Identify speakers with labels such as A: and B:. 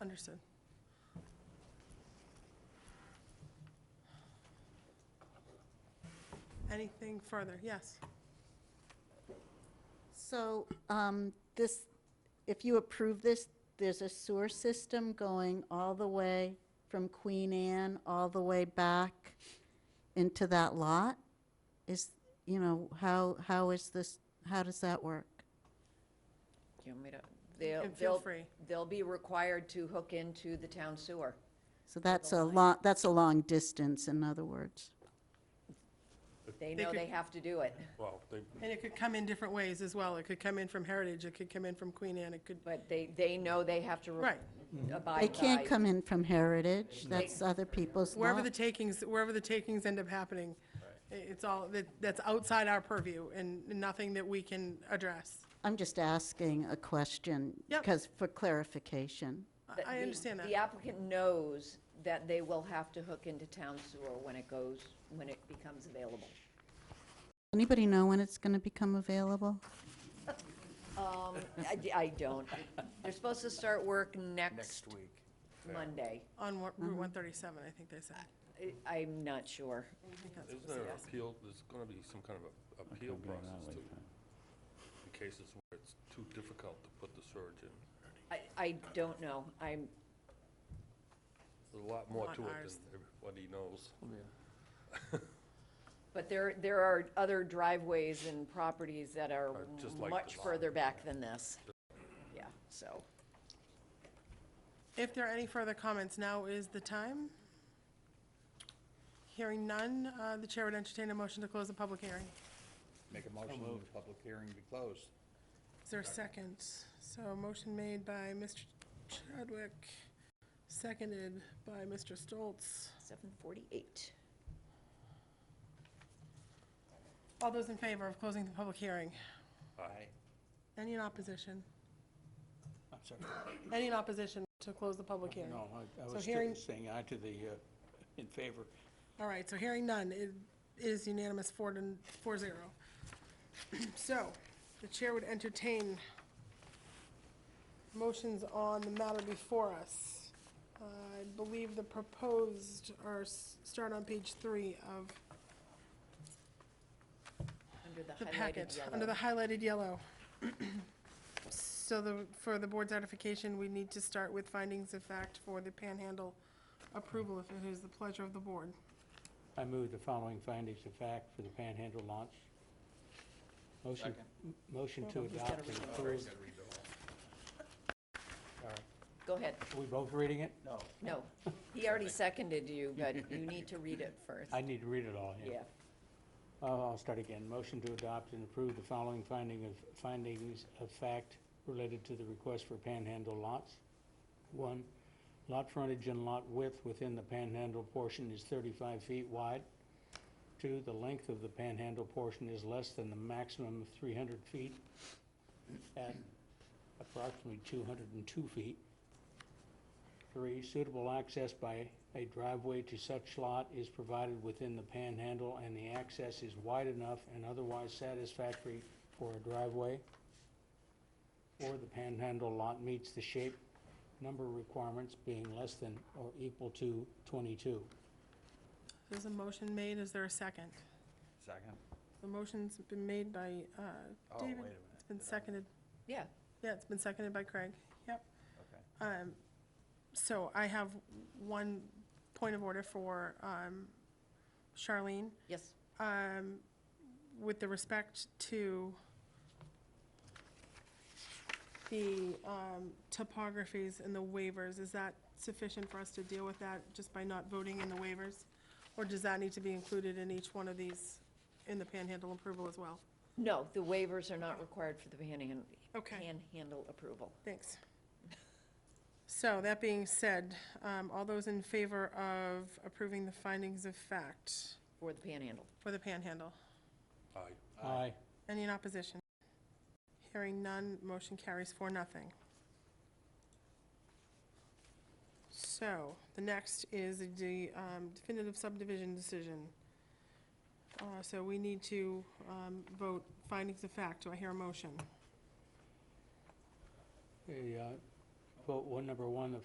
A: Understood. Anything further? Yes.
B: So um, this, if you approve this, there's a sewer system going all the way from Queen Anne, all the way back into that lot? Is, you know, how, how is this, how does that work?
C: Do you want me to? They'll-
A: can feel
C: they'll-
A: free.
C: They'll be required to hook into the town sewer.
B: So that's a long, that's a long distance, in other words.
C: They
A: They
C: know
A: could-
C: they have to do it,
D: Well, Oh, they,
A: And it could come in different ways as well. It could come in from Heritage, it could come in from Queen Anne, it could,
C: but they, they know they have to. re-
A: Right.
C: Abide by.
B: They can't come in from Heritage, that's other people's
A: wherever
B: lot.
A: the takings, wherever the takings end up happening, i- it's all, that that's outside our purview and nothing that we can address.
B: I'm just asking a question.
A: Yep.
B: Because, for clarification.
A: I-
C: that
A: I
C: the-
A: understand that.
C: The applicant knows that they will have to hook into town sewer when it goes, when it becomes available.
B: Anybody know when it's going to become available?
C: Um, I, I don't. They're supposed to start work next
E: week.
C: Monday.
A: On Wa-
C: Mm-hmm.
A: Route 137, I think they said.
C: I- I'm not sure.
D: isn't there an appeal, there's gonna be some kind of a- appeal process too? In cases where it's too difficult to put the surge in.
C: I, I don't know. I'm,
D: There's a lot more
A: Not
D: to it
A: ours.
D: than everybody knows.
C: But there, there are other driveways and properties that are
D: Are just like
C: much
D: this.
C: further back than this. Yeah, so,
A: If there are any further comments, now is the time. Hearing none, uh, the chair would entertain a motion to close the public hearing.
E: Make a motion that the public hearing be closed.
A: Is there a second? So motion made by Mr. Chadwick, seconded by Mr. Stoltz.
C: seven forty-eight.
A: All those in favor of closing the public hearing?
E: Aye.
A: Any in opposition?
E: I'm sorry.
A: Any in opposition to close the public hearing?
E: No, I- I
A: So
E: was
A: hearing-
E: still saying aye to the, uh, in favor.
A: All right, so hearing none, it is unanimous four to, four zero. So, the chair would entertain motions on the matter before us. Uh, I believe the proposed are, s- start on page three of
C: Under the
A: the
C: highlighted
A: packet, under the
C: yellow.
A: highlighted yellow. So the, for the board's ratification, we need to start with findings of fact for the panhandle approval, if it is the pleasure of the board.
F: I move the following findings of fact for the Panhandle launch. Motion, m- motion to adopt and approve.
C: Go ahead.
F: Are we both reading it?
E: No.
C: No, he already seconded you, but you need to read it first.
F: I need to read it all, yeah.
C: Yeah,
F: I'll I'll start again. Motion to adopt and approve the following finding of, findings of fact related to the request for Panhandle lots. One, lot frontage and lot width within the Panhandle portion is thirty-five feet wide. Two, the length of the Panhandle portion is less than the maximum of three hundred feet at approximately two hundred and two feet. Three, suitable access by a driveway to such lot is provided within the panhandle and the access is wide enough and otherwise satisfactory for a driveway. Four, the panhandle lot meets the shape number requirements being less than or equal to twenty-two.
A: There's a motion made, is there a second?
E: Second?
A: The motion's been made by uh,
E: Oh, wait a
A: David,
E: minute.
A: it's been seconded,
C: yeah.
A: yeah, it's been seconded by Craig, yep.
E: Okay.
A: Um, So I have one point of order for um, Charlene.
C: Yes,
A: um, with the respect to the um, topographies and the waivers, is that sufficient for us to deal with that just by not voting in the waivers? Or does that need to be included in each one of these, in the panhandle approval as well?
C: no, the waivers are not required for the panhandle,
A: Okay.
C: panhandle approval.
A: Thanks. So, that being said, um, all those in favor of approving the findings of fact
C: For the panhandle,
A: for the panhandle?
D: Aye.
F: Aye.
A: Any in opposition? Hearing none, motion carries for nothing. So, the next is the um, definitive subdivision decision. Uh, So we need to um, vote findings of fact. Do I hear a motion?
F: The, uh, vote one, number one, the